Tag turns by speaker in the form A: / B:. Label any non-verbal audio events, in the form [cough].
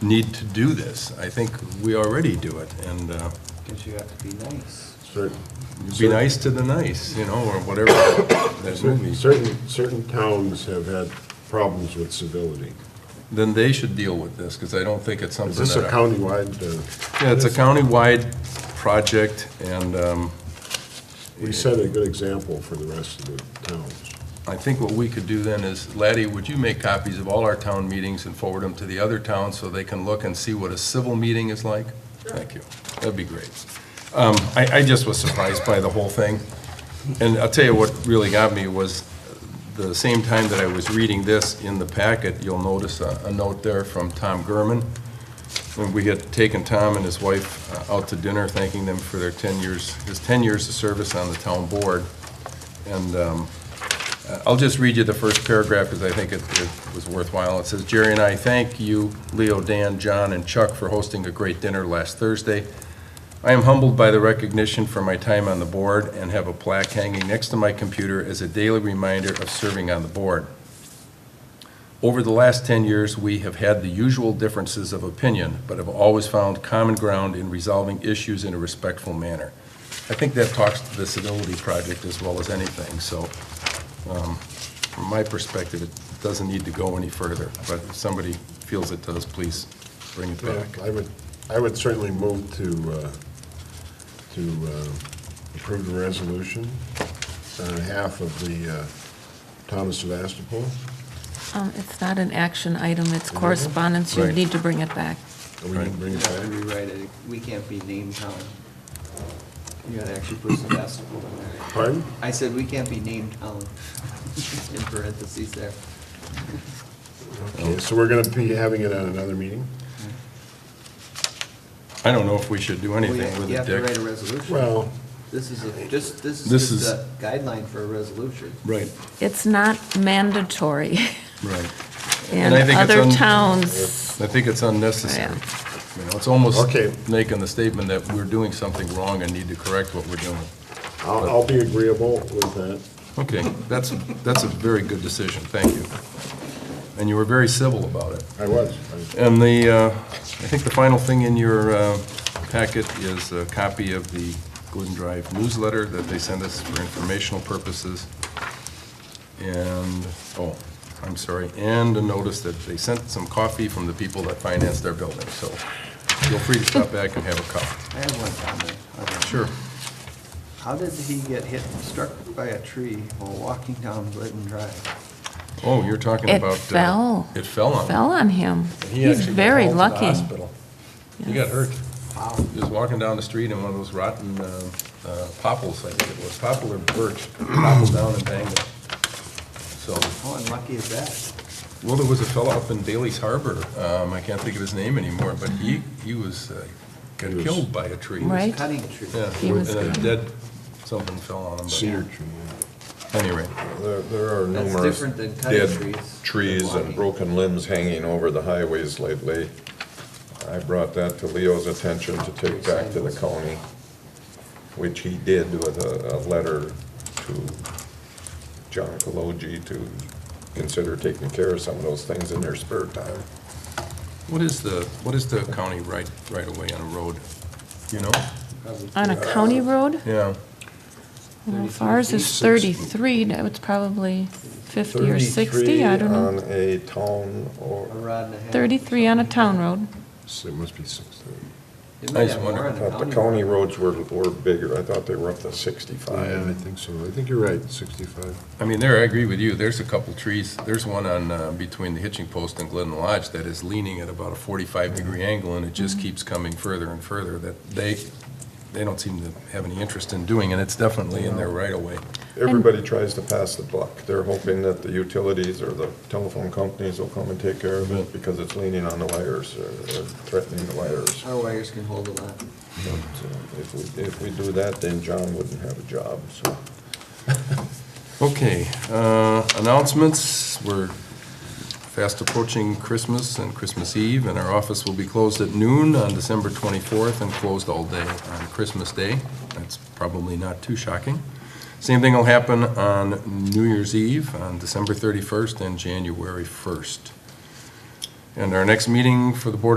A: need to do this. I think we already do it, and uh,
B: Because you have to be nice.
C: Certain,
A: be nice to the nice, you know, or whatever [coughs] that movie.
C: certain, certain towns have had problems with civility.
A: Then they should deal with this, because I don't think it's something
C: Is
A: that...
C: this a
A: I-
C: countywide, uh,
A: Yeah, it's a countywide project, and um,
C: we set a good example for the rest of the towns.
A: I think what we could do then is, Laddie, would you make copies of all our town meetings and forward them to the other towns so they can look and see what a civil meeting is like? Thank you. That'd be great. Um, I, I just was surprised by the whole thing. And I'll tell you what really got me was, the same time that I was reading this in the packet, you'll notice a, a note there from Tom Gurman. And we had taken Tom and his wife uh, out to dinner, thanking them for their 10 years, his 10 years of service on the town board. And um, uh, I'll just read you the first paragraph because I think it it was worthwhile. It says, "Jerry and I thank you, Leo, Dan, John, and Chuck for hosting a great dinner last Thursday. I am humbled by the recognition for my time on the board and have a plaque hanging next to my computer as a daily reminder of serving on the board. Over the last 10 years, we have had the usual differences of opinion, but have always found common ground in resolving issues in a respectful manner." I think that talks to the civility project as well as anything, so um, From my perspective, it doesn't need to go any further, but if somebody feels it does, please bring it back.
C: I would, I would certainly move to, uh, to uh, approve the resolution on behalf of the uh, town of Sebastopol.
D: Um, It's not an action item, it's correspondence, you
A: Mm-hmm. Right.
D: need to bring it back.
C: And we didn't bring
B: You
C: it
B: have to
C: back.
B: rewrite it. We can't be named town. You gotta actually put Sebastopol in there.
C: Pardon?
B: I said we can't be named town, [laughs] in parentheses there.
C: Okay, so we're going to be having it at another meeting?
A: I don't know if we should do anything
B: Well,
A: with
B: You
A: it,
B: have to write a
A: Dick.
B: resolution.
C: Well,
B: This is a, just, this
A: This
B: is just
A: is-
B: a guideline for a resolution.
A: Right,
D: It's not mandatory, [laughs]
A: right. And
D: and
A: I think it's
D: other
A: un-
D: towns,
A: I think it's unnecessary.
D: Yeah.
A: You know, It's almost
C: Okay.
A: making the statement that we're doing something wrong and need to correct what we're doing.
C: I'll, I'll be agreeable with that.
A: Okay, that's, that's a very good decision, thank you. And you were very civil about it.
C: I was. I-
A: And the, uh, I think the final thing in your uh, packet is a copy of the Glidden Drive newsletter that they send us for informational purposes. And, oh, I'm sorry, and a notice that they sent some coffee from the people that financed their building, so feel free to stop back and have a cup.
B: I have one comment. on that.
A: Sure.
B: How did he get hit, struck by a tree while walking down Glidden Drive?
A: Oh, you're talking
D: It
A: about. uh,
D: fell.
A: It fell on.
D: fell on him. He's very lucky.
A: He got hurt.
B: Wow.
A: He was walking down the street and one of those rotten uh, uh, popples, I think it was, poplar birch, poppled down and banged it. So,
B: How unlucky is that?
A: well, there was a fellow up in Bailey's Harbor, um, I can't think of his name anymore, but he, he was, uh, got
C: He was-
A: killed by a tree.
D: Right.
B: Cutting a tree.
A: Yeah,
D: He
A: and
D: was
A: a
D: killed.
A: dead, something fell on him,
C: Cedar
A: but
C: tree.
A: anyway.
C: There, there are
B: That's
C: numerous
B: different than cutting trees.
E: dead trees and broken limbs hanging over the highways lately. I brought that to Leo's attention to take back to the county, which he did with a, a letter to John Kaloji to consider taking care of some of those things in their spare time.
A: What is the, what is the county right, right away on a road? You know?
B: Probably
D: On a county
A: Uh,
D: road,
A: Yeah,
D: Well, if ours is 33, that was probably 50 or 60, I don't know.
E: Thirty-three on a town
B: A
E: or,
B: rod and a half.
D: 33 on a town road.
C: It must be six thirty.
B: They
A: I
B: might
A: just
B: have
A: wonder
B: more
E: I
B: on a
E: thought the
B: road.
E: county roads were, were bigger. I thought they were up to
C: Yeah, I
E: sixty-five.
C: think so. I think you're right, sixty-five.
A: I mean, there, I agree with you, there's a couple trees, there's one on, uh, between the hitching post and Glidden Lodge that is leaning at about a forty-five degree angle, and it just keeps coming further and further, that they, they don't seem to have any interest in doing, and it's definitely in their right of way.
E: Everybody tries to pass the buck. They're hoping that the utilities or the telephone companies will come and take care of it because it's leaning on the wires or or threatening the wires.
B: Our wires can hold a lot.
E: But uh, if we, if we do that, then John wouldn't have a job, so.
A: Okay, uh, announcements, we're fast approaching Christmas and Christmas Eve, and our office will be closed at noon on December twenty-fourth and closed all day on Christmas Day. That's probably not too shocking. Same thing will happen on New Year's Eve, on December thirty-first and January first. And our next meeting for the Board of